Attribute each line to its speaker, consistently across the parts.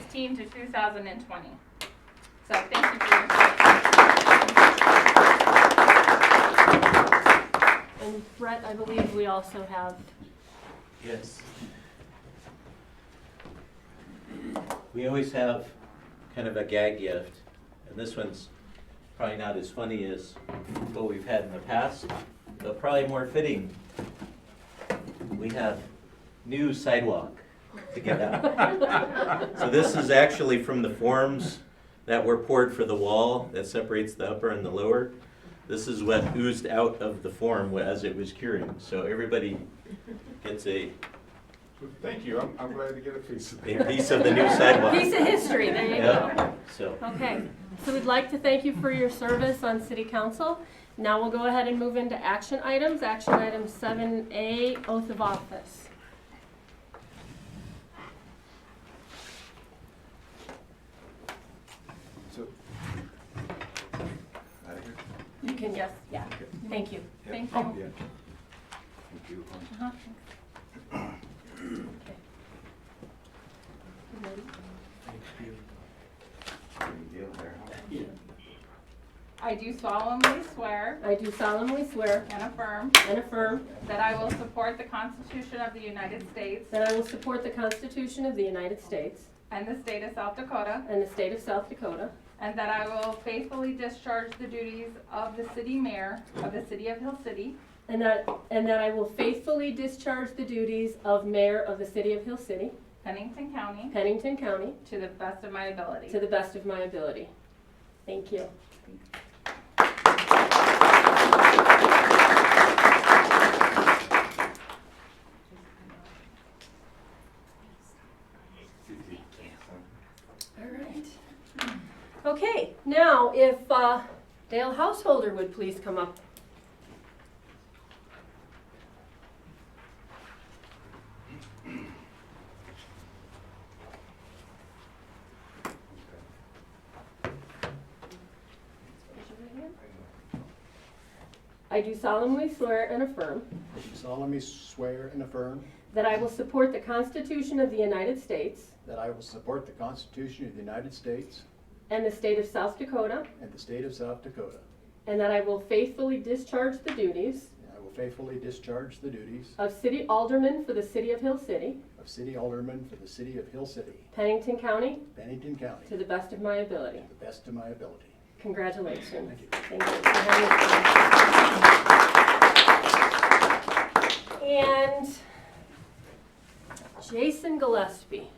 Speaker 1: sixteen to two thousand and twenty. So thank you for your time.
Speaker 2: And Brett, I believe we also have,
Speaker 3: Yes. We always have kind of a gag gift, and this one's probably not as funny as what we've had in the past, but probably more fitting. We have new sidewalk to get out. So this is actually from the forms that were poured for the wall that separates the upper and the lower. This is what oozed out of the form as it was curing, so everybody gets a
Speaker 4: Thank you, I'm, I'm glad to get a piece of
Speaker 3: A
Speaker 4: it.
Speaker 3: piece of the new sidewalk.
Speaker 2: piece of history, there you go.
Speaker 3: Yeah, so,
Speaker 2: Okay, so we'd like to thank you for your service on city council. Now we'll go ahead and move into action items. Action item seven A, oath of office.
Speaker 4: So- Out of here?
Speaker 2: You can, yes, yeah, thank you.
Speaker 4: Yeah.
Speaker 1: Thank you.
Speaker 4: Yeah. Thank you.
Speaker 1: Uh-huh.
Speaker 2: You ready?
Speaker 4: Big deal there, huh?
Speaker 1: I do solemnly swear
Speaker 2: I do solemnly swear
Speaker 1: and affirm
Speaker 2: and affirm
Speaker 1: that I will support the Constitution of the United States
Speaker 2: that I will support the Constitution of the United States
Speaker 1: and the state of South Dakota,
Speaker 2: and the state of South Dakota,
Speaker 1: and that I will faithfully discharge the duties of the city mayor of the city of Hill City
Speaker 2: and that, and that I will faithfully discharge the duties of mayor of the city of Hill City,
Speaker 1: Pennington County
Speaker 2: Pennington County,
Speaker 1: to the best of my ability.
Speaker 2: to the best of my ability. Thank you. All right. Okay, now if uh, Dale Householder would please come up. I do solemnly swear and affirm
Speaker 5: I do solemnly swear and affirm
Speaker 2: that I will support the Constitution of the United States
Speaker 5: that I will support the Constitution of the United States
Speaker 2: and the state of South Dakota,
Speaker 5: and the state of South Dakota,
Speaker 2: and that I will faithfully discharge the duties
Speaker 5: and I will faithfully discharge the duties
Speaker 2: of city alderman for the city of Hill City,
Speaker 5: of city alderman for the city of Hill City,
Speaker 2: Pennington County,
Speaker 5: Bennington County,
Speaker 2: to
Speaker 5: to
Speaker 2: the best of my ability.
Speaker 5: the best of my ability.
Speaker 2: Congratulations.
Speaker 5: Thank you.
Speaker 2: Thank you for having us. And Jason Gillespie.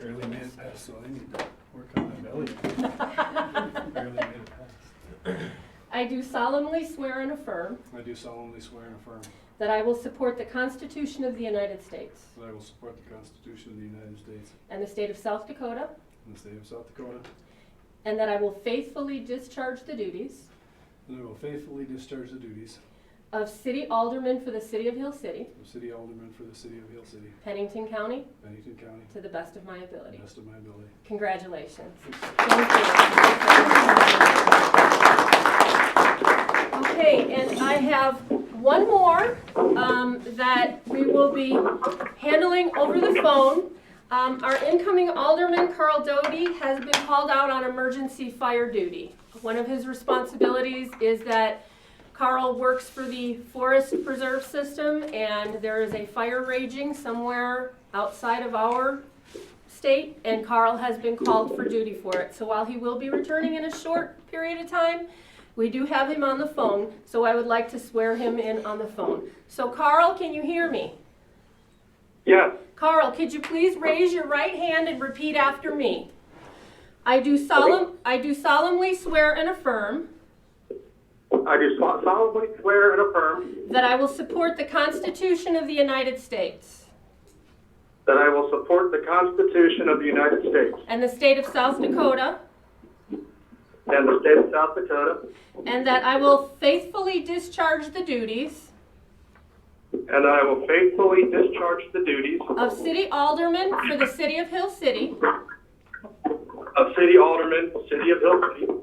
Speaker 6: Barely made it past, so I need to work on my belly. Barely made it past.
Speaker 2: I do solemnly swear and affirm
Speaker 6: I do solemnly swear and affirm
Speaker 2: that I will support the Constitution of the United States
Speaker 6: that I will support the Constitution of the United States
Speaker 2: and the state of South Dakota,
Speaker 6: and the state of South Dakota,
Speaker 2: and that I will faithfully discharge the duties
Speaker 6: and I will faithfully discharge the duties
Speaker 2: of city alderman for the city of Hill City,
Speaker 6: of city alderman for the city of Hill City,
Speaker 2: Pennington County,
Speaker 6: Bennington County,
Speaker 2: to the best of my
Speaker 6: to the
Speaker 2: ability.
Speaker 6: best of my ability.
Speaker 2: Congratulations. Thank you. Okay, and I have one more um, that we will be handling over the phone. Um, Our incoming alderman, Carl Doty, has been called out on emergency fire duty. One of his responsibilities is that Carl works for the Forest Preserve System, and there is a fire raging somewhere outside of our state, and Carl has been called for duty for it. So while he will be returning in a short period of time, we do have him on the phone, so I would like to swear him in on the phone. So Carl, can you hear me?
Speaker 7: Yes,
Speaker 2: Carl, could you please raise your right hand and repeat after me? I do solemn, I do solemnly swear and affirm
Speaker 7: I do sol- solemnly swear and affirm
Speaker 2: that I will support the Constitution of the United States
Speaker 7: that I will support the Constitution of the United States
Speaker 2: and the state of South Dakota,
Speaker 7: and the state of South Dakota,
Speaker 2: and that I will faithfully discharge the duties
Speaker 7: and that I will faithfully discharge the duties
Speaker 2: of city alderman for the city of Hill City
Speaker 7: of city alderman, city of Hill City,